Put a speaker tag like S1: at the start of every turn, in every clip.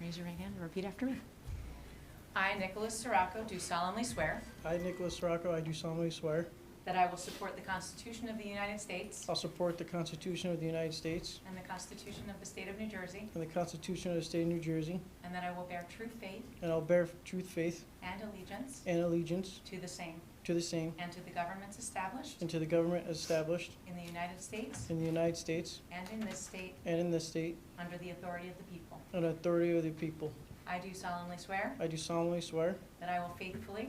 S1: Raise your right hand and repeat after me.
S2: I, Nicholas Sirocco, do solemnly swear
S3: I, Nicholas Rocco, I do solemnly swear,
S2: that I will support the Constitution of the United States
S3: I'll support the Constitution of the United States
S2: and the Constitution of the State of New Jersey,
S3: and the Constitution of the State of New Jersey,
S2: and that I will bear true faith
S3: and I'll bear true faith
S2: and allegiance
S3: and allegiance
S2: to the same
S3: to the same
S2: and to the governments established
S3: and to the government established
S2: in the United States
S3: in the United States
S2: and in this state
S3: and in this state
S2: under the authority of the people.
S3: under authority of the people.
S2: I do solemnly swear
S3: I do solemnly swear
S2: that I will faithfully,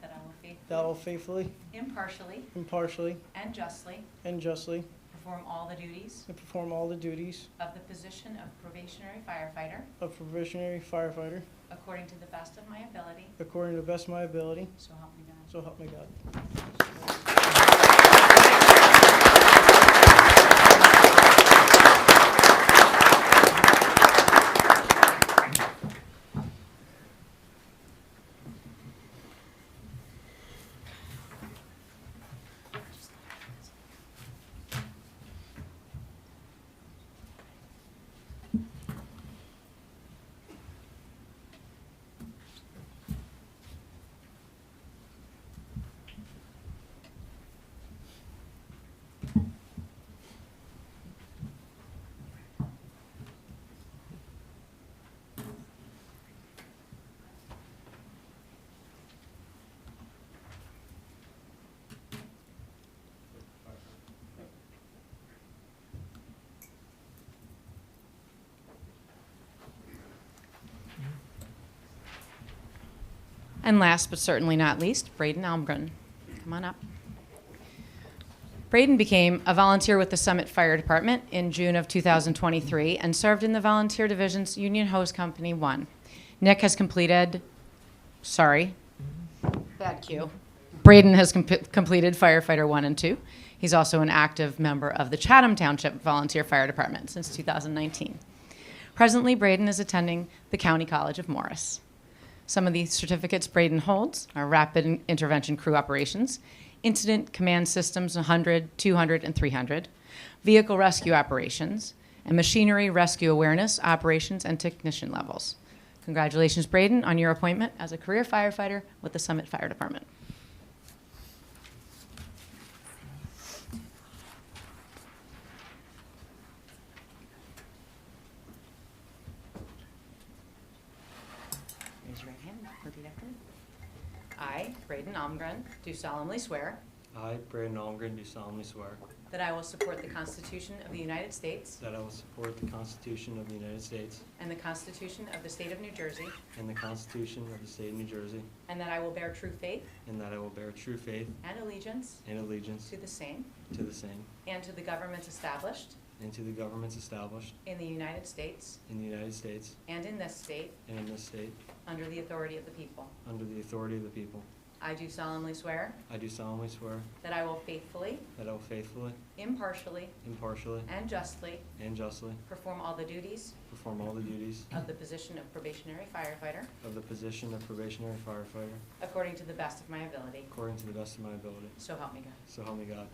S2: that I will
S3: that I will
S2: faithfully,
S3: faithfully,
S2: impartially,
S3: impartially,
S2: and justly
S3: and justly
S2: perform all the duties
S3: and perform all the duties
S2: of the position of probationary firefighter
S3: of probationary firefighter
S2: according to the best of my ability,
S3: according to the best of my ability,
S2: so help me God.
S3: so help me God.
S2: And last but certainly not least, Braden Almgren. Come on up. Braden became a volunteer with the Summit Fire Department in June of 2023 and served in the Volunteer Division's Union Hose Company 1. Nick has completed, sorry, bad cue. Braden has com- completed firefighter 1 and 2. He's also an active member of the Chatham Township Volunteer Fire Department since 2019. Presently, Braden is attending the County College of Morris. Some of the certificates Braden holds are Rapid Intervention Crew Operations, Incident Command Systems 100, 200, and 300, Vehicle Rescue Operations, and Machinery Rescue Awareness Operations and Technician Levels. Congratulations, Braden, on your appointment as a career firefighter with the Summit Fire Department. Raise your right hand. Repeat after me. I, Braden Omgren, do solemnly swear
S4: I, Brandon Almgren, do solemnly swear
S2: that I will support the Constitution of the United States
S4: that I will support the Constitution of the United States
S2: and the Constitution of the State of New Jersey,
S4: and the Constitution of the State of New Jersey,
S2: and that I will bear true faith
S4: and that I will bear true faith
S2: and allegiance
S4: and allegiance
S2: to the same
S4: to the same
S2: and to the governments established
S4: and to the governments established
S2: in the United States
S4: in the United States
S2: and in this state
S4: and in this state
S2: under the authority of the people.
S4: under the authority of the people.
S2: I do solemnly swear
S4: I do solemnly swear
S2: that I will faithfully,
S4: that I will faithfully,
S2: impartially,
S4: impartially,
S2: and justly
S4: and justly
S2: perform all the duties
S4: perform all the duties
S2: of the position of probationary firefighter
S4: of the position of probationary firefighter
S2: according to the best of my ability.
S4: according to the best of my ability.
S2: So help me God.
S4: So help me God.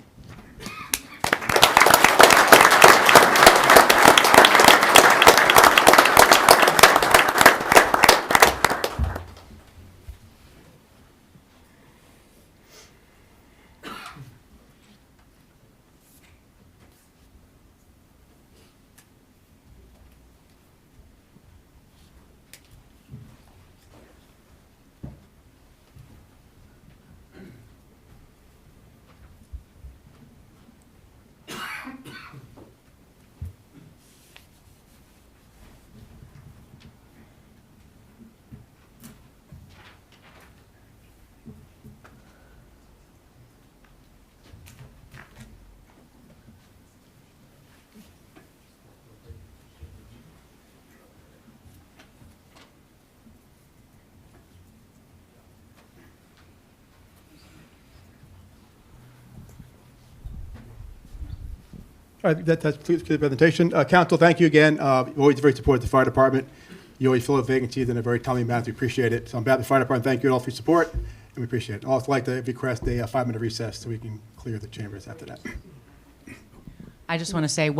S5: All right, that, that's complete the presentation. Uh, Council, thank you again. Uh, you always very supportive of the fire department. You always fill up vacancies in a very timely manner. We appreciate it. So on behalf of the fire department, thank you all for your support, and we appreciate it. I'd also like to request a uh, five-minute recess so we can clear the chambers after that.
S2: I just want to say